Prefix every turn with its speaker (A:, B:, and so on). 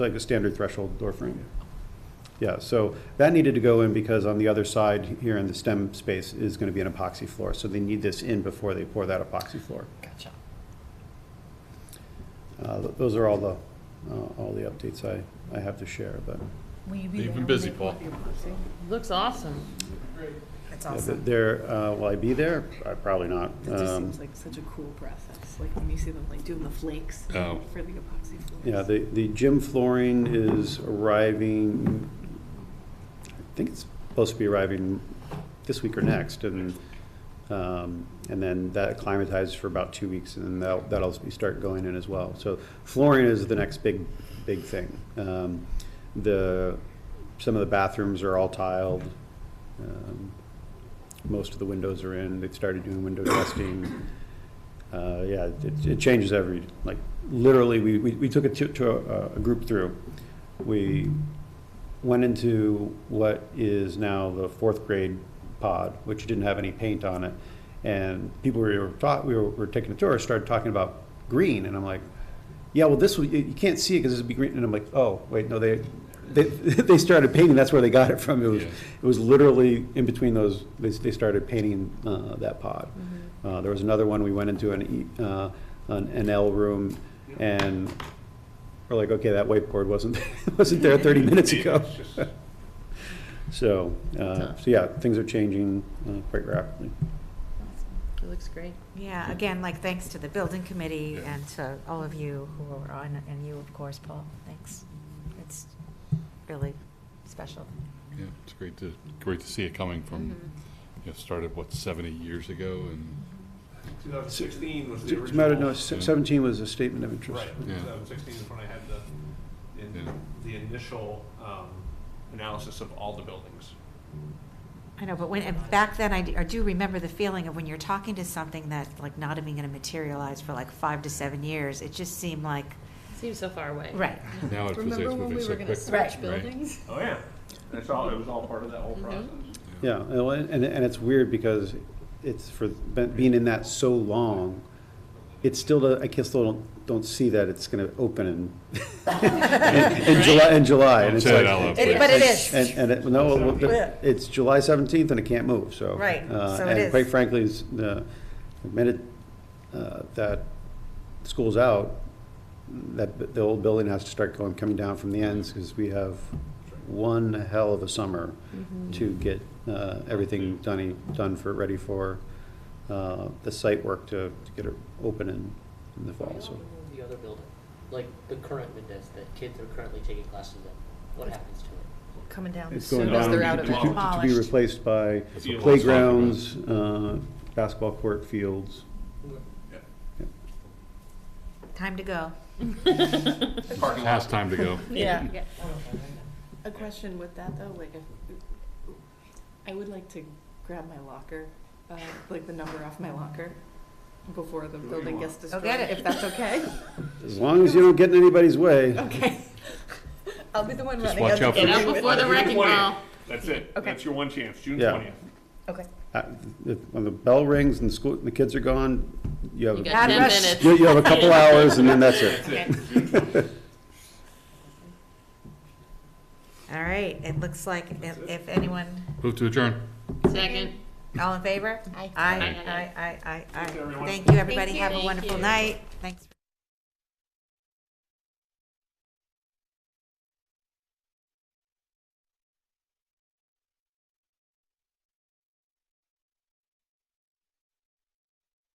A: Like a standard threshold door frame. Yeah, so that needed to go in because on the other side here in the stem space is going to be an epoxy floor. So they need this in before they pour that epoxy floor.
B: Gotcha.
A: Uh, th- Those are all the, uh, all the updates I, I have to share, but
B: Will you be there
C: You've been
B: when
C: busy,
B: they-
C: Paul.
D: Looks awesome.
B: That's
A: yeah,
B: awesome.
A: but there, uh, will I be there? Uh, Probably not.
D: That just
A: Um,
D: seems like such a cool process, like when you see them like doing the flakes
C: Oh.
D: for the epoxy floors.
A: Yeah, the, the gym flooring is arriving, I think it's supposed to be arriving this week or next, and, um, and then that acclimatizes for about two weeks, and then that'll, that'll be start going in as well. So flooring is the next big, big thing. Um, The, some of the bathrooms are all tiled, um, most of the windows are in, they've started doing window testing. Uh, Yeah, it, it changes every, like, literally, we, we we took it to, to a- a group through. We went into what is now the fourth grade pod, which didn't have any paint on it. And people we were taught, we were, were taking a tour, started talking about green, and I'm like, yeah, well, this, was- you you can't see it because this would be green, and I'm like, oh, wait, no, they, they, they started painting, that's where they got it from. It was,
C: Yeah.
A: it was literally in between those, they, they started painting, uh, that pod. Uh, there was another one, we went into an, E- uh, an, an L room, and we're like, okay, that whiteboard wasn't, wasn't there thirty minutes ago. So, uh, so yeah, things are changing uh, quite rapidly.
D: It looks great.
B: Yeah, again, like, thanks to the building committee
C: Yeah.
B: and to all of you who are on, and you, of course, Paul, thanks. It's really special.
C: Yeah, it's great to, great to see it coming from,
D: Mm-hmm.
C: you know, started, what, 70 years ago, and
E: 2016 was the
A: As a
E: original.
A: matter of, no, se- seventeen was a statement of interest.
E: Right,
C: Yeah.
E: 2016 is when I had the, in-
C: Yeah.
E: the initial um, analysis of all the buildings.
B: I know, but when, and back then, I d- I do remember the feeling of when you're talking to something that's like not even gonna materialize for like five to seven years, it just seemed like,
D: Seems so far away.
B: right,
C: now it feels like it's moving so quick.
B: switch
C: right?
E: Oh, yeah. That's all, it was all part of that whole process.
A: Yeah, and, and- and it's weird because it's for, be- being in that so long, it's still, I guess, still don't, don't see that it's gonna open in, in July, in July. and
C: Don't
A: it's
C: say it
A: like-
C: out loud,
B: It-
C: please.
B: but it is.
A: And, and it, no, well, the- it's July seventeenth and it can't move, so.
B: Right,
A: uh,
B: so it is.
A: And quite frankly, it's, uh, the minute, uh, that school's out, that, bu- the old building has to start going, coming down from the ends, because we have one hell of a summer
D: Mm-hmm.
A: to get, uh, everything done, done for, ready for, uh, the site work to, to get it open in, in the fall, so.
F: The other building, like the current Mendez that kids are currently taking classes in, what happens to it?
D: Coming down.
A: It's going
D: soon as
A: down
D: they're
A: to-
D: out of
A: to-
D: it.
A: to- To be
B: Demolished.
A: replaced by
C: That's what Paul's talking about.
A: playgrounds, uh, basketball court fields.
B: time to go.
E: Parking lot.
C: Past time to go.
D: Yeah.
G: A question with that though, like if, I would like to grab my locker, uh, like the number off my locker before the building gets
B: Go
G: destroyed,
B: get it.
G: if that's okay.
A: As long as you don't get in anybody's way.
G: Okay. I'll be the one
C: Just
G: running.
C: watch out for
D: Get
C: the-
D: out before the
E: June
D: wrecking
E: 20th.
D: ball.
E: That's it.
G: Okay.
E: That's your one chance, June
A: Yeah.
E: 20th.
G: Okay.
A: Uh, if- When the bell rings and the school, the kids are gone, you have,
D: You
A: you
D: got ten
B: Address.
D: minutes.
A: you have a couple hours and then that's it.
B: All right, it looks like if, if anyone,
C: Move to adjourn.
D: Second.
B: all in favor? Aye. Aye,
C: Aye.
B: aye, aye, aye, aye.
E: everyone.
B: Thank you, everybody,
D: Thank you.
B: have a
D: Thank
B: wonderful
D: you.
B: night.